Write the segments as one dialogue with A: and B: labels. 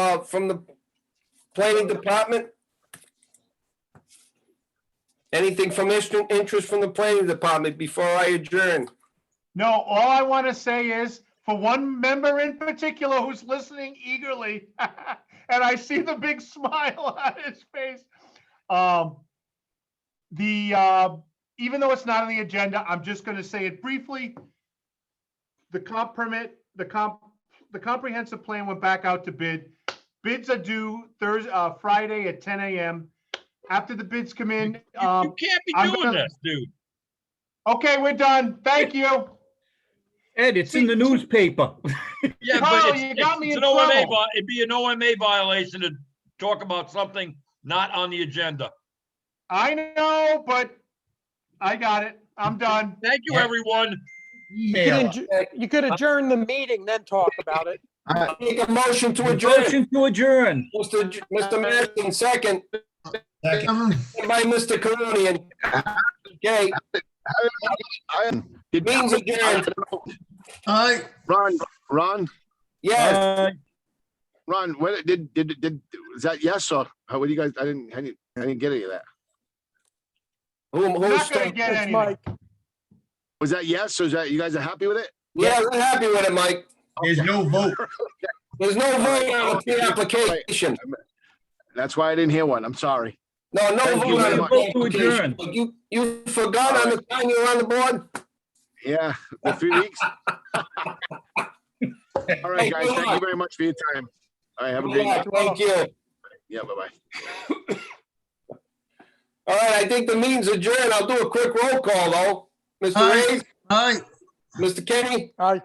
A: uh, from the planning department? Anything from inter- interest from the planning department before I adjourn?
B: No, all I want to say is, for one member in particular who's listening eagerly, and I see the big smile on his face. Um, the, uh, even though it's not on the agenda, I'm just going to say it briefly. The comp permit, the comp, the comprehensive plan went back out to bid. Bids are due Thursday, uh, Friday at ten AM. After the bids come in,
C: You-
B: um,
C: You can't be
B: I'm
C: doing
B: gonna-
C: this, dude.
B: okay, we're done. Thank you.
D: Ed, it's in the newspaper.
C: Yeah,
B: Carl,
C: but
B: you
C: it's,
B: got me
C: it's
B: in
C: an OMA,
B: trouble.
C: vi- it'd be an OMA violation to talk about something not on the agenda.
B: I know, but I got it. I'm done.
C: Thank you,
D: Yeah.
C: everyone.
E: You could adj- You could adjourn the meeting, then talk about it.
A: Make a motion to adjourn.
D: Motion to adjourn.
A: Mr. J- Mr. Madison, second.
F: Second.
A: By Mr. Karunian. Okay,
G: Did
A: means adjourned.
F: Aye.
G: Ron, Ron,
A: Yes,
D: Uh,
G: Ron, what, did, did, did, is that yes or, how, what do you guys, I didn't, I didn't, I didn't get any of that.
A: who,
B: We're
A: who
B: not gonna
A: second?
B: get
E: It's
B: anything.
E: Mike.
G: Was that yes? or is that, you guys are happy with it?
A: Yeah, we're happy with it, Mike.
F: There's no vote.
A: There's no vote on the application.
G: That's why I didn't hear one. I'm sorry.
A: No, no
G: Thank you
A: vote on
G: very
A: the
G: much.
D: Vote to
A: application. You, you forgot on the time you were on the board?
G: Yeah, the three weeks. All right, guys, thank you very much for your time. All right, have a great
A: Yeah,
G: night.
A: Thank you.
G: Yeah, bye-bye.
A: All right, I think the meeting's adjourned. I'll do a quick roll call, though. Mr.
F: Aye.
A: Ray,
F: Aye.
A: Mr. Kenny,
E: Aye.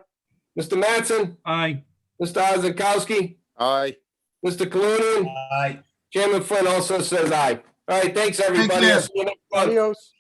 A: Mr. Mattson,
D: Aye.
A: Mr. Ozakowski,
G: Aye.
A: Mr. Clunin,
F: Aye.
A: Chairman Flynn also says aye. All right, thanks, everybody.
F: care.
A: I'll see you next month.
E: Adios.